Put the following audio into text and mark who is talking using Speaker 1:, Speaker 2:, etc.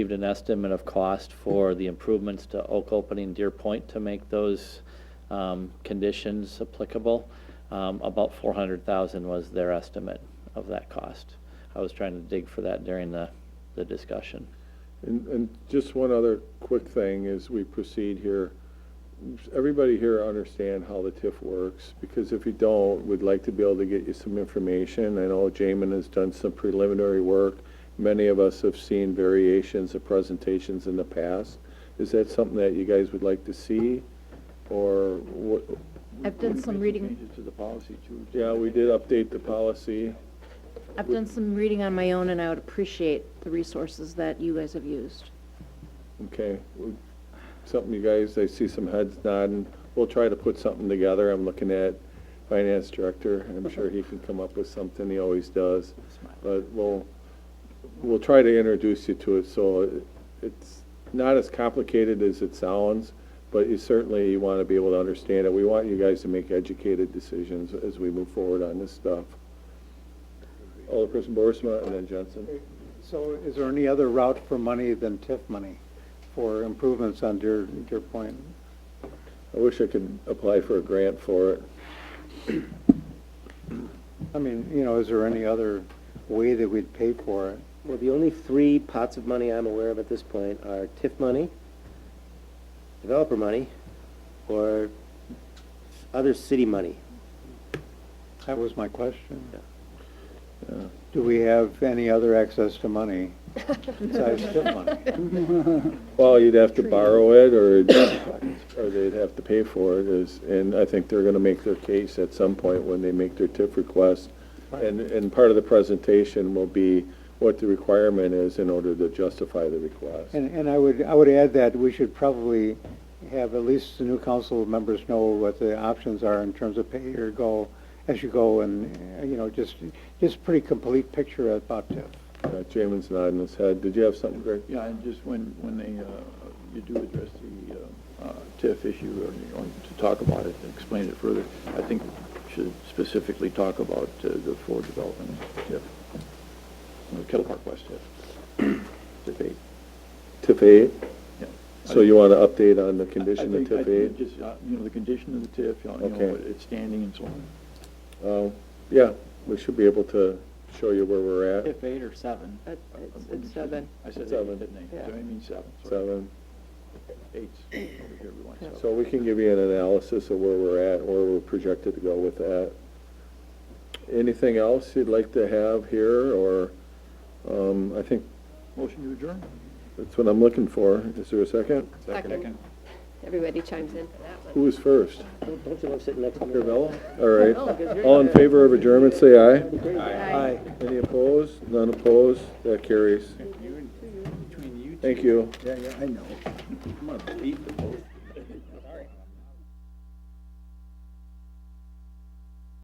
Speaker 1: received an estimate of cost for the improvements to Oak Opening Deer Point to make those um, conditions applicable. Um, About 400,000 was their estimate of that cost. I was trying to dig for that during the, the discussion.
Speaker 2: And, and just one other quick thing as we proceed here. Everybody here understand how the TIF works, because if you don't, we'd like to be able to get you some information. I know Jamin has done some preliminary work. Many of us have seen variations of presentations in the past. Is that something that you guys would like to see, or what?
Speaker 3: I've done some reading,
Speaker 4: Changes to the policy too.
Speaker 2: Yeah, we did update the policy.
Speaker 3: I've done some reading on my own, and I would appreciate the resources that you guys have used.
Speaker 2: Okay, well, something you guys, I see some heads nodding. We'll try to put something together. I'm looking at finance director. I'm sure he can come up with something. He always does. But we'll, we'll try to introduce you to it, so it- it's not as complicated as it sounds, but you certainly want to be able to understand it. We want you guys to make educated decisions as we move forward on this stuff. Alderperson Borisma and then Jensen.
Speaker 4: So is there any other route for money than TIF money for improvements on Deer, Deer Point?
Speaker 2: I wish I could apply for a grant for it.
Speaker 4: I mean, you know, is there any other way that we'd pay for it?
Speaker 5: Well, the only three pots of money I'm aware of at this point are TIF money, developer money, or other city money.
Speaker 4: That was my question.
Speaker 5: Yeah.
Speaker 2: Yeah.
Speaker 4: Do we have any other access to money besides TIF money?
Speaker 2: Well, you'd have to borrow it, or, or they'd have to pay for it, is, and I think they're gonna make their case at some point when they make their TIF request. And, and part of the presentation will be what the requirement is in order to justify the request.
Speaker 4: And, and I would, I would add that we should probably have at least the new council members know what the options are in terms of pay or go, as you go, and, uh, you know, just, just pretty complete picture about TIF.
Speaker 2: Uh, Jamin's nodding his head. Did you have something, Greg?
Speaker 6: Yeah, and just when, when they, uh, you do address the uh, uh, TIF issue, or you want to talk about it, and explain it further, I think we should specifically talk about uh, the Ford development TIF, the Kettle Park West TIF, TIF eight.
Speaker 2: TIF eight?
Speaker 6: Yeah.
Speaker 2: So you want to update on the condition
Speaker 6: I- I
Speaker 2: of
Speaker 6: think-
Speaker 2: TIF
Speaker 6: I think
Speaker 2: eight?
Speaker 6: Just, uh, you know, the condition of the TIF, you know, you
Speaker 2: Okay.
Speaker 6: know, what it's standing and so on.
Speaker 2: Um, yeah, we should be able to show you where we're at.
Speaker 6: TIF eight or seven?
Speaker 5: Uh,
Speaker 6: It's seven. I said eight,
Speaker 2: Seven.
Speaker 6: didn't I? So I mean seven, sorry.
Speaker 2: Seven.
Speaker 6: Eight's over here, we want seven.
Speaker 2: So we can give you an analysis of where we're at, where we're projected to go with that. Anything else you'd like to have here, or, um, I think
Speaker 6: Motion to adjourn?
Speaker 2: that's what I'm looking for. Is there a second?
Speaker 6: Second.
Speaker 7: Everybody chimes in for that one.
Speaker 2: Who was first?
Speaker 5: Don't don't you love sitting next to me?
Speaker 2: Carvella? All right. All in favor of adjournment, say aye.
Speaker 4: Aye.
Speaker 2: Any opposed? None opposed? That carries. Thank you.
Speaker 6: Yeah, yeah, I know. I'm gonna beat the motion.